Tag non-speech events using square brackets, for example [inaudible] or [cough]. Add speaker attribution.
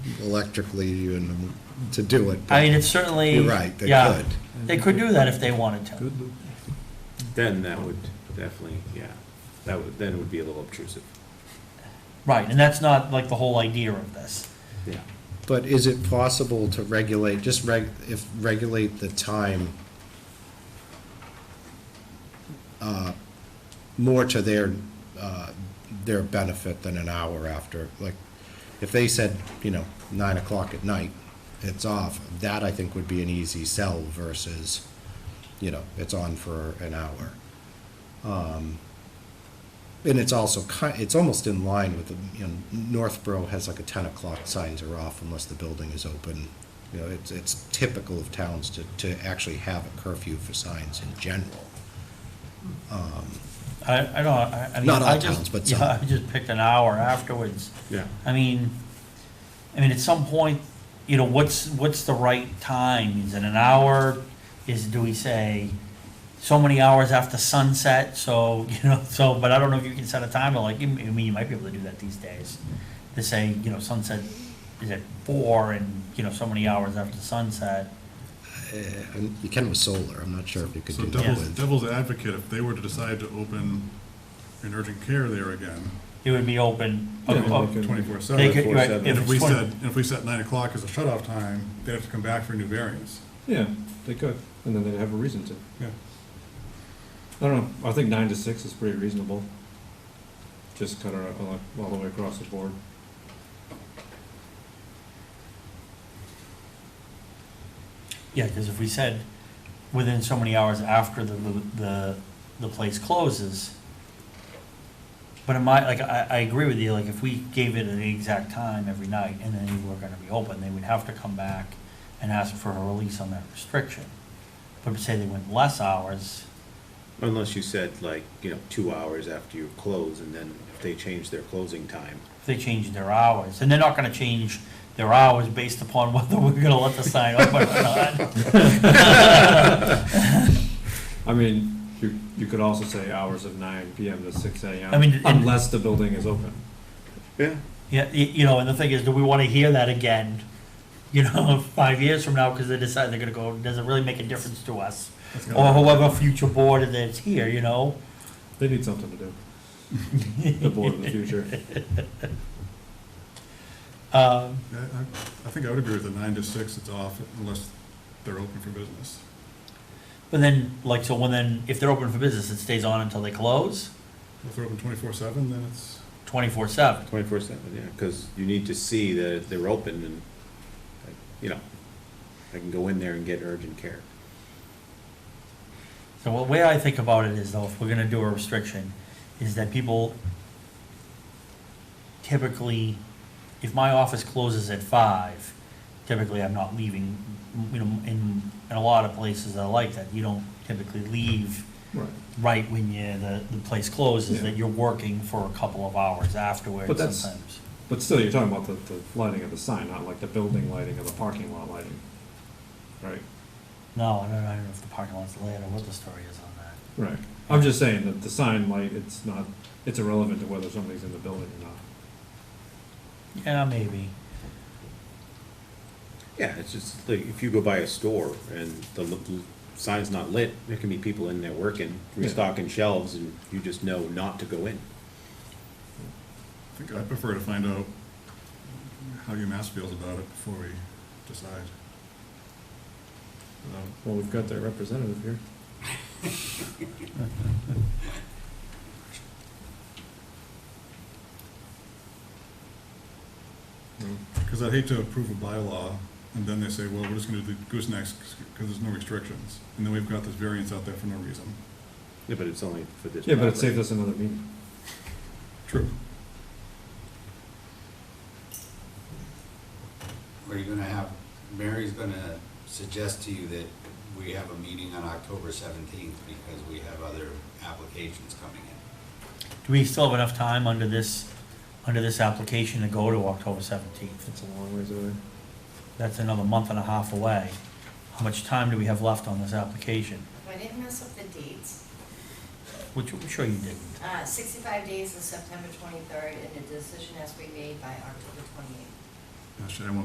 Speaker 1: electrically you and to do it. but
Speaker 2: I mean, it's certainly.
Speaker 1: You're right, they
Speaker 2: yeah,
Speaker 1: could.
Speaker 2: They could do that if they wanted to.
Speaker 3: Then that would definitely, yeah, that would, then it would be a little obtrusive,
Speaker 2: Right, and that's not like the whole idea of this.
Speaker 3: yeah.
Speaker 1: But is it possible to regulate, just reg, if, regulate the time uh, more to their, uh, their benefit than an hour after? Like, if they said, you know, nine o'clock at night, it's off, that I think would be an easy sell versus, you know, it's on for an hour. Um, and it's also ki- it's almost in line with, the you know, Northborough has like a ten o'clock signs are off unless the building is open. You know, it's, it's typical of towns to, to actually have a curfew for signs in general.
Speaker 2: I, I don't, I, I mean.
Speaker 1: Not all
Speaker 2: I just-
Speaker 1: towns, but
Speaker 2: [laughs] Yeah,
Speaker 1: some.
Speaker 2: I just picked an hour afterwards.
Speaker 3: Yeah.
Speaker 2: I mean, I mean, at some point, you know, what's, what's the right time? Is it an hour? Is, do we say so many hours after sunset? So, [laughs] you know, so, but I don't know if you can set a timer, like, you- I mean, you might be able to do that these days. To say, you know, sunset is at four and, you know, so many hours after sunset.
Speaker 1: Eh, And you can with solar, I'm not sure if you could
Speaker 4: So
Speaker 1: do that
Speaker 4: devil's,
Speaker 1: with.
Speaker 4: devil's advocate, if they were to decide to open an urgent care there again,
Speaker 2: It would be open.
Speaker 4: twenty-four
Speaker 2: They
Speaker 4: seven.
Speaker 2: could, right, if
Speaker 4: And if
Speaker 2: it's
Speaker 4: we
Speaker 2: 20
Speaker 4: said, if we set nine o'clock as a shut-off time, they'd have to come back for new variants.
Speaker 5: Yeah, they could, and then they'd have a reason to.
Speaker 4: Yeah.
Speaker 5: I don't know, I think nine to six is pretty reasonable. Just cut it out all, all the way across the board.
Speaker 2: Yeah, because if we said within so many hours after the, the, the place closes, but in my, like, I, I agree with you, like, if we gave it an exact time every night and then you were gonna be open, they would have to come back and ask for a release on that restriction. But say they went less hours,
Speaker 3: Unless you said like, you know, two hours after you close, and then if they change their closing time.
Speaker 2: if they changed their hours, and they're not gonna change their hours based upon [laughs] whether we're gonna let the sign open or not.
Speaker 5: I mean, you, you could also say hours of nine PM to six AM.
Speaker 2: I mean, and-
Speaker 5: Unless the building is open.
Speaker 3: Yeah.
Speaker 2: Yeah, y- you know, and the thing is, do we want to hear that again? You know, [laughs] five years from now, because they decide they're gonna go, does it really make a difference to us?
Speaker 4: That's
Speaker 2: Or
Speaker 4: gotta-
Speaker 2: whoever future board that's here, you know?
Speaker 5: They need something to do. The board of
Speaker 2: [laughs]
Speaker 5: the future.
Speaker 2: Um,
Speaker 4: I, I- I think I would agree with the nine to six, it's off unless they're open for business.
Speaker 2: But then, like, so when then, if they're open for business, it stays on until they close,
Speaker 4: If they're open twenty-four seven, then it's,
Speaker 2: twenty-four seven.
Speaker 3: Twenty-four seven, yeah, because you need to see that they're open and, like, you know, I can go in there and get urgent care.
Speaker 2: So what way I think about it is though, if we're gonna do a restriction, is that people typically, if my office closes at five, typically I'm not leaving, you know, in, in a lot of places I like that, you don't typically leave
Speaker 5: Right.
Speaker 2: right when you, the, the place closes, that
Speaker 5: Yeah.
Speaker 2: you're working for a couple of hours afterwards
Speaker 5: But that's-
Speaker 2: sometimes.
Speaker 5: But still, you're talking about the, the lighting of the sign, not like the building lighting or the parking lot lighting. Right?
Speaker 2: No, I don't, I don't know if the parking lot's lit or what the story is on that.
Speaker 5: Right. I'm just saying that the sign light, it's not, it's irrelevant to whether something's in the building or not.
Speaker 2: Yeah, maybe.
Speaker 3: Yeah, it's just like, if you go by a store and the l- l- sign's not lit, there can be people in there working,
Speaker 5: Yeah.
Speaker 3: restocking shelves, and you just know not to go in.
Speaker 4: I think I'd prefer to find out how UMass feels about it before we decide. Without
Speaker 5: Um, Well, we've got their representative here.
Speaker 4: Because I'd hate to approve a bylaw, and then they say, well, we're just gonna do the goosenecks, because there's no restrictions, and then we've got this variance out there for no reason.
Speaker 3: Yeah, but it's only for this.
Speaker 5: Yeah, but it
Speaker 3: property.
Speaker 5: saved us another meeting.
Speaker 4: True.
Speaker 6: Are you gonna have, Mary's gonna suggest to you that we have a meeting on October seventeenth because we have other applications coming in.
Speaker 2: Do we still have enough time under this, under this application to go to October seventeenth?
Speaker 5: It's a long ways away.
Speaker 2: That's another month and a half away. How much time do we have left on this application?
Speaker 7: I didn't mess up the dates.
Speaker 2: Which, I'm sure you didn't.
Speaker 7: Uh, 65 days is September 23rd, and the decision has to be made by October 28th.
Speaker 4: Actually, I won't